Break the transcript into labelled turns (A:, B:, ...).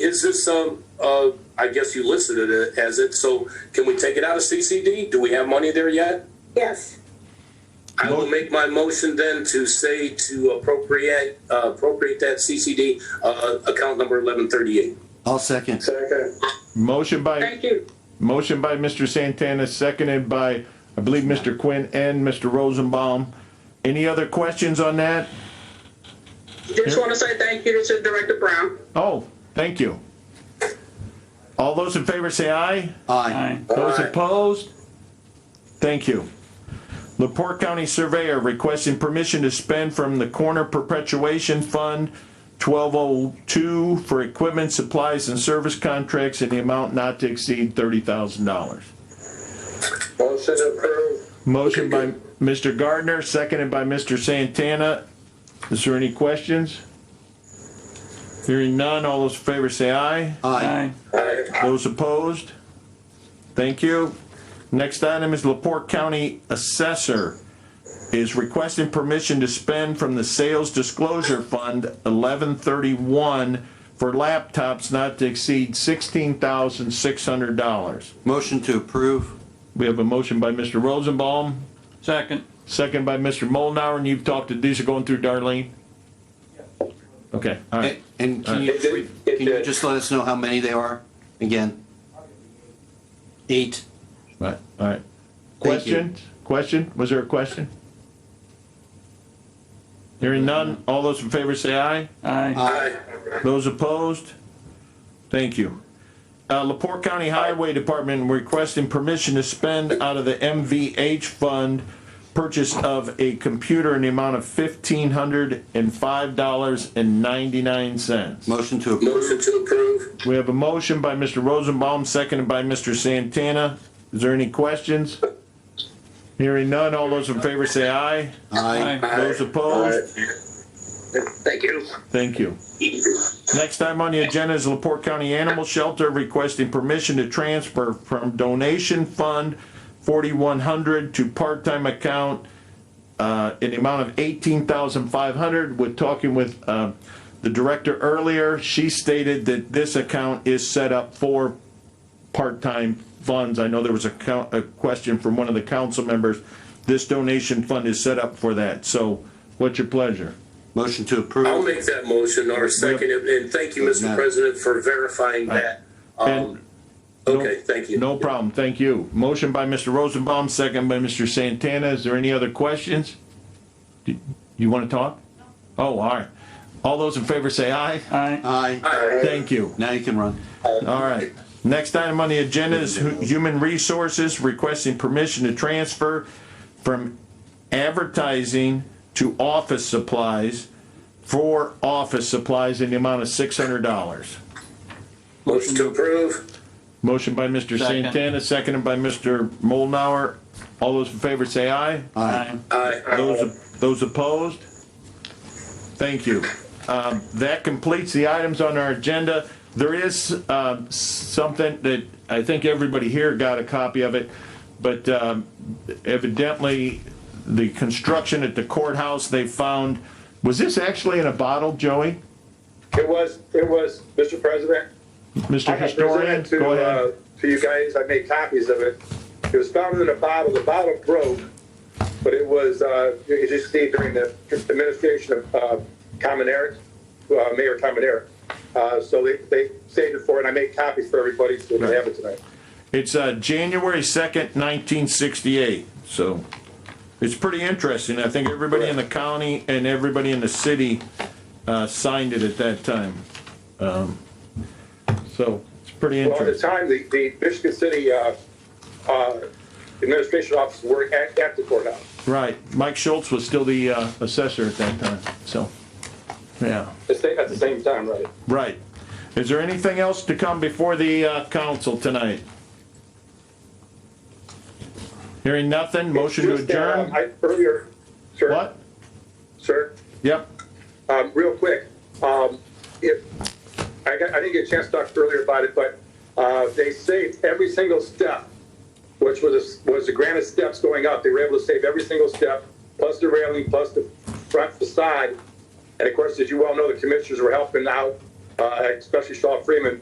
A: is this, um, uh, I guess you listed it as it, so can we take it out of CCD? Do we have money there yet?
B: Yes,
A: I will make my motion then to say to appropriate, uh, appropriate that CCD, uh, account number eleven thirty-eight.
C: I'll second.
B: Second.
D: Motion by,
B: thank you.
D: motion by Mr. Santana, seconded by, I believe, Mr. Quinn and Mr. Rosenbaum. Any other questions on that?
B: Just want to say thank you to Director Brown.
D: Oh, thank you. All those in favor say aye.
C: Aye.
D: Those
A: Aye.
D: opposed? Thank you. Lepore County Surveyor requesting permission to spend from the Corner Perpetuation Fund twelve oh two for equipment, supplies, and service contracts in the amount not to exceed thirty thousand dollars.
A: Motion approved.
D: Motion by Mr. Gardner, seconded by Mr. Santana. Is there any questions? Hearing none, all those in favor say aye.
C: Aye.
D: Those opposed? Thank you. Next item is Laporte County Assessor is requesting permission to spend from the Sales Disclosure Fund eleven thirty-one for laptops not to exceed sixteen thousand six hundred dollars.
C: Motion to approve.
D: We have a motion by Mr. Rosenbaum,
E: Second.
D: second by Mr. Molnauer, and you've talked to, these are going through Darlene? Okay, all
C: A-
D: right.
C: And
A: It
C: can you,
A: did- it
C: can you
A: did.
C: just let us know how many there are again? Eight.
D: Right, all right.
C: Thank you.
D: Question, question, was there a question? Hearing none, all those in favor say aye.
E: Aye.
A: Aye.
D: Those opposed? Thank you. Uh, Lepore County Highway Department requesting permission to spend out of the MVH fund purchase of a computer in the amount of fifteen hundred and five dollars and ninety-nine cents.
C: Motion to approve.
A: Motion to approve.
D: We have a motion by Mr. Rosenbaum, seconded by Mr. Santana. Is there any questions? Hearing none, all those in favor say aye.
C: Aye.
D: Those opposed?
B: Thank you.
D: Thank you. Next time on the agenda is Laporte County Animal Shelter requesting permission to transfer from donation fund forty-one hundred to part-time account uh, in the amount of eighteen thousand five hundred. We're talking with uh, the director earlier. She stated that this account is set up for part-time funds. I know there was a count, a question from one of the council members. This donation fund is set up for that. So what's your pleasure?
C: Motion to
A: I'll
C: approve.
A: make that motion or second it, and thank you, Mr. President, for verifying that. Um, okay, thank you.
D: No problem, thank you. Motion by Mr. Rosenbaum, second by Mr. Santana. Is there any other questions? Do You want to talk? Oh, all right. All those in favor say aye.
E: Aye.
C: Aye.
D: Thank you.
C: Now you can run.
D: All right. Next item on the agenda is hu- Human Resources requesting permission to transfer from advertising to office supplies for office supplies in the amount of six hundred dollars.
A: Motion to approve.
D: Motion by Mr.
E: Second.
D: Santana, seconded by Mr. Molnauer. All those in favor say aye.
E: Aye.
A: Aye.
D: Those, those opposed? Thank you. Um, that completes the items on our agenda. There is, um, something that I think everybody here got a copy of it, but, um, evidently, the construction at the courthouse, they found, was this actually in a bottle, Joey?
F: It was, it was, Mr. President. I
D: Mr.
F: had
D: Historian,
F: presented
D: go
F: to, uh,
D: ahead.
F: to you guys, I made copies of it. It was found in a bottle, the bottle broke, but it was, uh, it just stayed during the administration of, uh, Common Eric, uh, Mayor Common Eric. Uh, so they, they saved it for, it. I made copies for everybody, so they have it tonight.
D: It's uh, January 2nd, 1968, so it's pretty interesting. I think everybody in the county and everybody in the city uh, signed it at that time. Um, So it's pretty
F: Well, at the
D: interesting.
F: time, the, the Michigan City, uh, uh, administration office were at, at the courthouse.
D: Right, Mike Schultz was still the uh, assessor at that time, so, yeah,
F: The same- At the same time, right?
D: right. Is there anything else to come before the uh, council tonight? Hearing nothing, motion to
F: Just, uh,
D: adjourn?
F: I, earlier, sir.
D: What?
F: Sir,
D: Yep,
F: um, real quick, um, if, I got, I didn't get a chance to talk earlier about it, but, uh, they saved every single step, which was, a- was the granite steps going up, they were able to save every single step, plus the railing, plus the front facade. And of course, as you well know, the commissioners were helping out uh, especially Shaw Freeman,